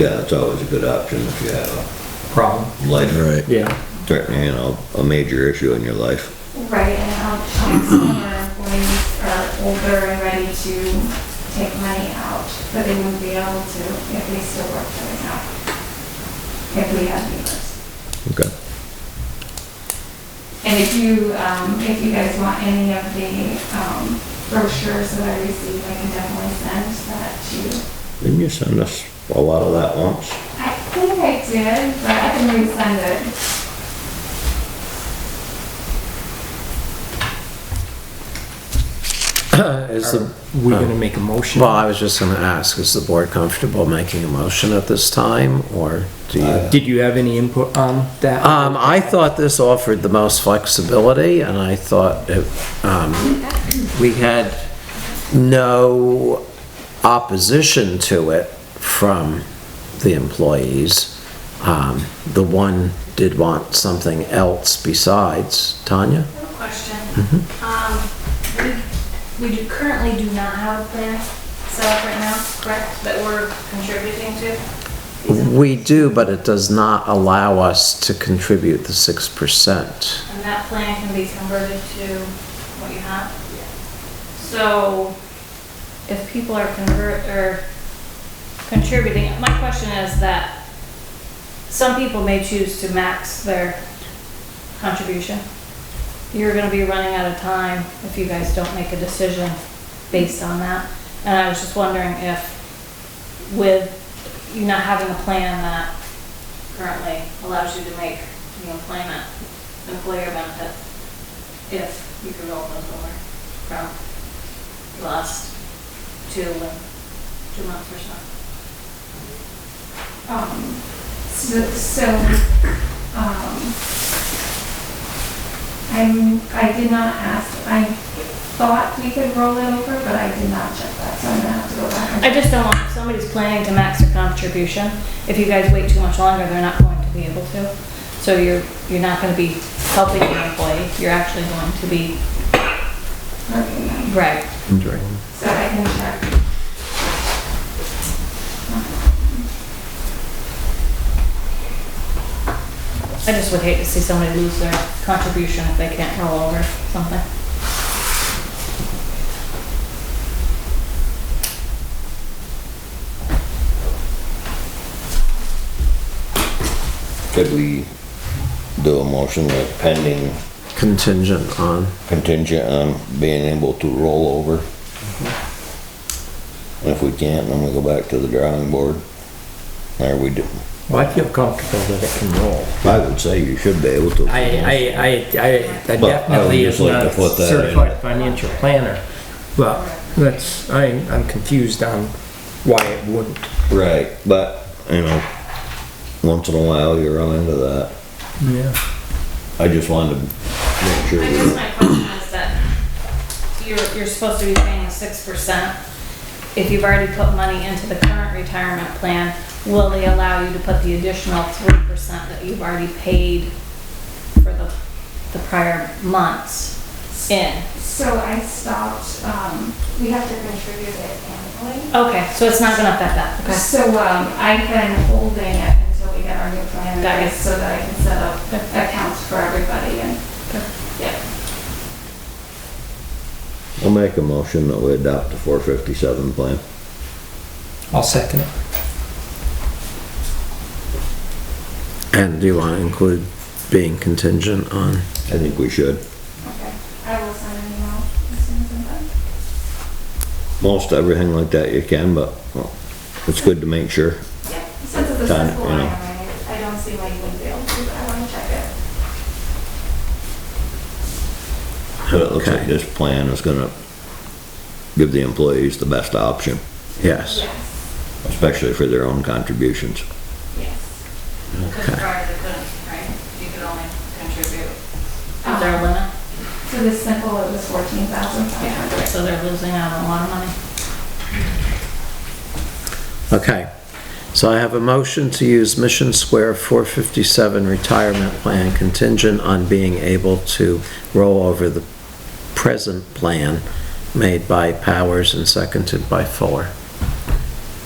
Yeah, it's always a good option if you have problem. a life Right. Yeah. threatening, you know, a major issue in your life. Right, and how, how some of our employees are older and ready to take money out, but they wouldn't be able to if they still work for the county. If we had beavers. Okay. And if you, um, if you guys want any of the, um, brochures that I received, I can definitely send that to you. Didn't you send us a lot of that once? I think I did, but I can resend it. Is the, we gonna make a motion? Well, I was just gonna ask, is the board comfortable making a motion at this time, or do you? Did you have any input on that? Uh, Um, I thought this offered the most flexibility, and I thought it, um, we had no opposition to it from the employees. Um, the one did want something else besides, Tanya? I have a question. Um, we, we do, currently do not have a plan set up right now, correct, that we're contributing to? We do, but it does not allow us to contribute the six percent. And that plan can be converted to what you have? So if people are convert, or contributing, my question is that some people may choose to max their contribution. You're gonna be running out of time if you guys don't make a decision based on that. And I was just wondering if with you not having a plan that currently allows you to make the employment, employer benefit, if you could roll those over from the last two, two months or so. Um, so, so, um, I'm, I did not ask, I thought we could roll it over, but I did not check that, so I'm gonna have to go back. and- I just don't want, if somebody's planning to max their contribution, if you guys wait too much longer, they're not going to be able to. So you're, you're not gonna be helping the employee, you're actually going to be, Okay, no. right, So I can check. I just would hate to see somebody lose their contribution if they can't roll over something. Could we do a motion like pending contingent on. contingent on being able to roll over? And if we can't, then we go back to the drawing board. There we do. Well, I feel comfortable that it can roll. I would say you should be able to. I, I, I, I- I But I would definitely just is like not to a put that in. certified financial planner. But that's, I, I'm confused on why it wouldn't. Right, but, you know, once in a while you run into that. Yeah. I just wanted to make sure. I we- guess my question is that you're, you're supposed to be paying six percent. If you've already put money into the current retirement plan, will they allow you to put the additional three percent that you've already paid for the, the prior months in? So I stopped, um, we have to contribute it annually. Okay, so it's not gonna affect that, okay? So, um, I've been holding it until we get our new plan in Got it. place so that I can set up accounts for everybody and, Okay. yeah. I'll make a motion that we adopt the four fifty-seven plan. I'll second it. And do you want to include being contingent on? I think we should. Okay, I will send an email as soon as I'm done. Most everything like that you can, but well, it's good to make sure. Yeah, since it's a Done, simple you line, know. I I don't see why you wouldn't be able to, but I wanna check it. But it looks like Okay. this plan is gonna give the employees the best option, Yes. Yes, especially for their own contributions. yes. Because prior they couldn't, right? You could only contribute. Is there a Um, limit? For this simple, it was fourteen thousand five hundred. So they're losing out on a lot of money. Okay. So I have a motion to use Mission Square 457 retirement plan contingent on being able to roll over the present plan made by Powers and seconded by Fuller.